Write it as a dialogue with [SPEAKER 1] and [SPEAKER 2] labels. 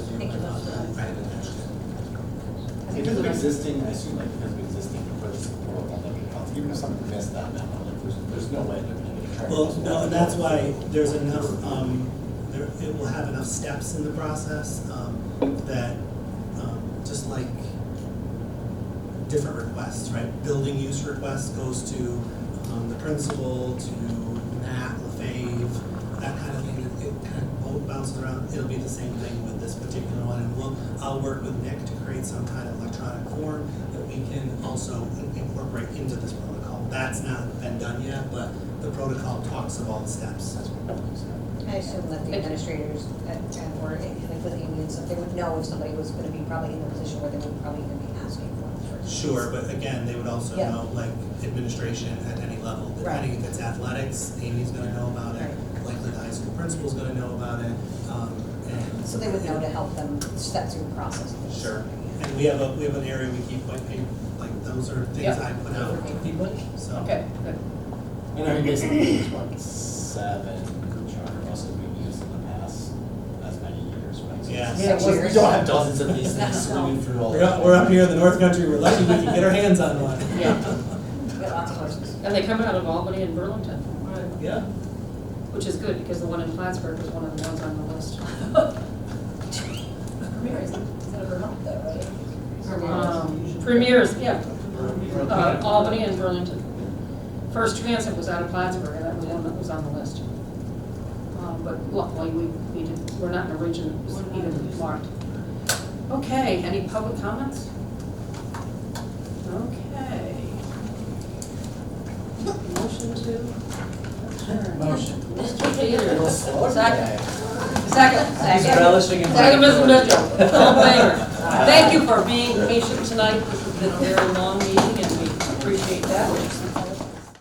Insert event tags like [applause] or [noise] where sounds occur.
[SPEAKER 1] existing, I assume like because of existing purchase of the world, on every house, even if something missed that memo, like there's, there's no way they're gonna get a track.
[SPEAKER 2] Well, no, and that's why there's enough, um, there, it will have enough steps in the process, um, that, um, just like different requests, right? Building use request goes to, um, the principal, to Matt, LaFave, that kind of thing. It- It kind of all bounces around. It'll be the same thing with this particular one, and we'll, I'll work with Nick to create some kind of electronic form that we can also incorporate into this protocol. That's not been done yet, but the protocol talks of all the steps.
[SPEAKER 1] That's what I'm saying.
[SPEAKER 3] I assume that the administrators at, at- or like with the unions, that they would know if somebody was gonna be probably in the position where they would probably even be asking for it.
[SPEAKER 2] Sure, but again, they would also
[SPEAKER 3] Yeah.
[SPEAKER 2] know, like, administration at any level, depending if it's athletics, Amy's gonna know about it, likely the high school principal's gonna know about it, um, and.
[SPEAKER 3] So they would know to help them step through the process. of this.
[SPEAKER 2] Sure, and we have a, we have an area we keep white paper, like, those are things
[SPEAKER 4] Yeah.
[SPEAKER 2] I put out, so.
[SPEAKER 4] Okay, good.
[SPEAKER 1] And I mean, basically, there's what, seven charter buses we've used in the past, as many years, right? So
[SPEAKER 2] Yeah.
[SPEAKER 1] it's-
[SPEAKER 3] Yeah,
[SPEAKER 1] it's just-
[SPEAKER 3] years.
[SPEAKER 1] We don't have dozens of these things
[SPEAKER 3] No.
[SPEAKER 1] swimming through all.
[SPEAKER 2] We're up, we're up here in the north country, we're lucky we can get our hands on one.
[SPEAKER 4] Yeah,
[SPEAKER 3] We got lots of horses.
[SPEAKER 4] and they come out of Albany and Burlington, right,
[SPEAKER 2] [laughs] Yeah,
[SPEAKER 4] which is good, because the one in Plattsburgh was one of the ones on the list.
[SPEAKER 3] Premier is, is that a Vermont though, right?
[SPEAKER 4] Um, Premiers, yeah, uh, Albany and Burlington. First Transit was out of Plattsburgh, and that was one that was on the list. Um, But luckily, we, we didn't, we're not in a region that was even marked. Okay, any public comments? Okay. Motion to adjourn.
[SPEAKER 1] Motion.
[SPEAKER 4] Mr. Peters.
[SPEAKER 3] Second. Second.
[SPEAKER 5] He's relishing in.
[SPEAKER 4] Second, Mr. Mitchell, all in favor?
[SPEAKER 5] Aye.
[SPEAKER 4] Thank you for being patient tonight, this has been a very long meeting, and we appreciate that.